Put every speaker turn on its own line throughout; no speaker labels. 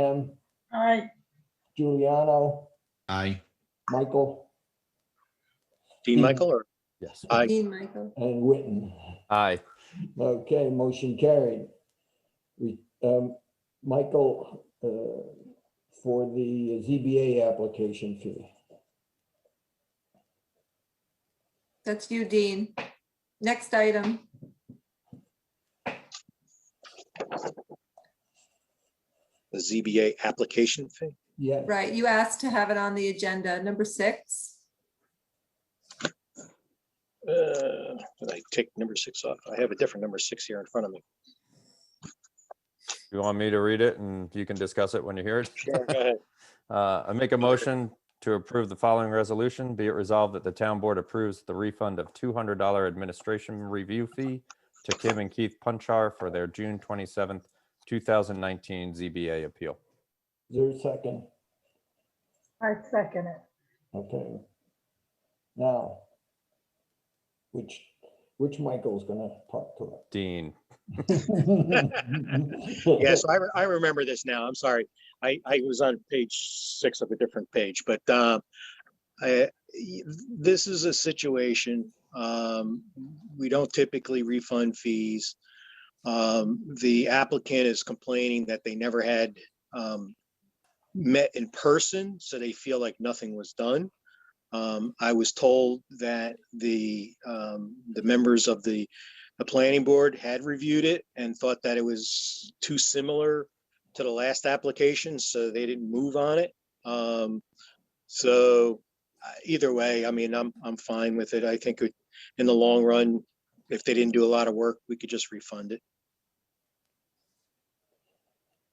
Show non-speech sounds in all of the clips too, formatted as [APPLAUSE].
Ann,
Aye.
Giuliano,
Aye.
Michael,
Dean Michael or
Yes.
Aye.
Dean Michael.
and Witten.
Aye.
Okay, motion carried. We, um, Michael, uh, for the ZBA application fee.
That's you, Dean. Next item.
the ZBA application fee?
Yeah,
Right, you asked to have it on the agenda, number six.
Uh, Did I take number six off? I have a different number six here in front of me.
You want me to read it and you can discuss it when you hear it?
Sure, go ahead.
Uh, I make a motion to approve the following resolution. Be it resolved that the town board approves the refund of two hundred dollar administration review fee to Kim and Keith Punchar for their June twenty-seventh, two thousand nineteen ZBA appeal.
is there a second?
I second it.
Okay. Now, which, which Michael's gonna talk to
Dean,
[LAUGHS] it?
[LAUGHS] Yes, I, re- I remember this now. I'm sorry. I, I was on page six of a different page, but uh, I, this is a situation, um, we don't typically refund fees. Um, The applicant is complaining that they never had um, met in person, so they feel like nothing was done. Um, I was told that the, um, the members of the the planning board had reviewed it and thought that it was too similar to the last application, so they didn't move on it. Um, so uh, either way, I mean, I'm, I'm fine with it. I think it- in the long run, if they didn't do a lot of work, we could just refund it.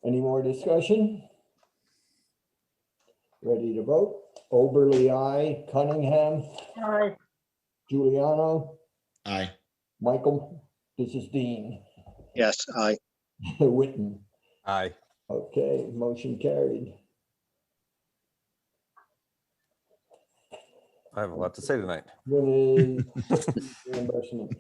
Any more discussion? Ready to vote? Oberly, I, Cunningham,
Aye.
Giuliano,
Aye.
Michael, this is Dean, [LAUGHS]
Yes, I,
Witten.
aye.
Okay, motion carried.
I have a lot to say tonight.
Renee, reimbursement.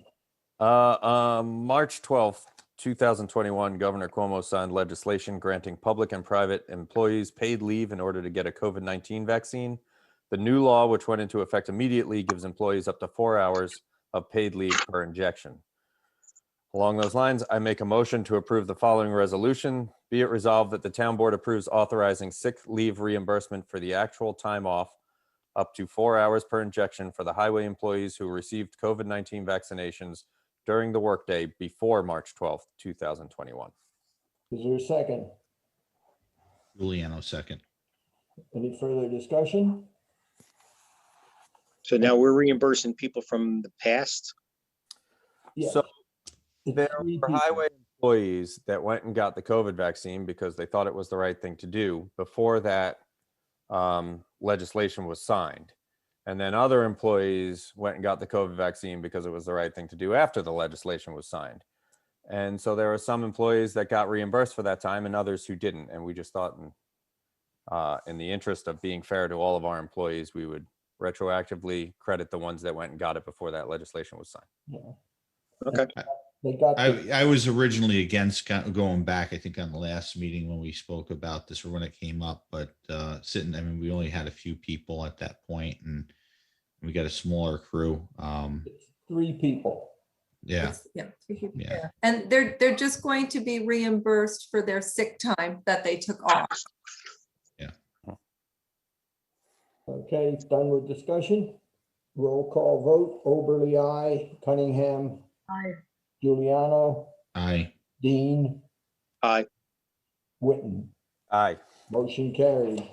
Uh, um, March twelfth, two thousand twenty-one, Governor Cuomo signed legislation granting public and private employees paid leave in order to get a COVID nineteen vaccine. The new law, which went into effect immediately, gives employees up to four hours of paid leave per injection. Along those lines, I make a motion to approve the following resolution. Be it resolved that the town board approves authorizing sick leave reimbursement for the actual time off up to four hours per injection for the highway employees who received COVID nineteen vaccinations during the workday before March 12th, 2021.
Is there a second?
Giuliano second.
Any further discussion?
so now we're reimbursing people from the past.
Yes.
So
It's
there
three
were
people.
highway employees that went and got the COVID vaccine because they thought it was the right thing to do before that um, legislation was signed. And then other employees went and got the COVID vaccine because it was the right thing to do after the legislation was signed. And so there were some employees that got reimbursed for that time and others who didn't. And we just thought, in, uh, in the interest of being fair to all of our employees, we would retroactively credit the ones that went and got it before that legislation was signed.
Okay,
They got, the-
I, I was originally against go- going back, I think on the last meeting when we spoke about this or when it came up, but uh sitting, I mean, we only had a few people at that point and we got a smaller crew. Um,
three people.
yeah,
It's- Yeah. three people.
yeah.
And they're, they're just going to be reimbursed for their sick time that they took off.
Okay, done with discussion. Roll call vote. Oberly, I, Cunningham,
Aye.
Giuliano,
I,
Dean,
I,
Witten.
Aye.
Motion carried.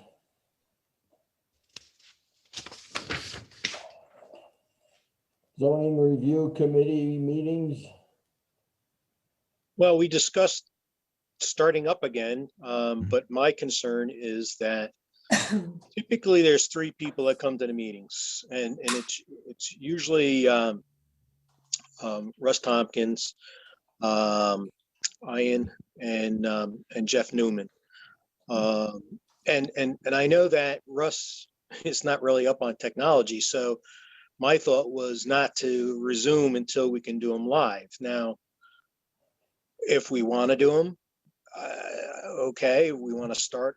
Zoning Review Committee meetings,
well, we discussed starting up again, um, but my concern is that
[LAUGHS]
typically there's three people that come to the meetings and, and it's, it's usually, um, um, Russ Tompkins, um, Ian and, um, and Jeff Newman. Um, and, and, and I know that Russ is not really up on technology, so my thought was not to resume until we can do them live. Now, if we want to do them, uh, okay, we want to start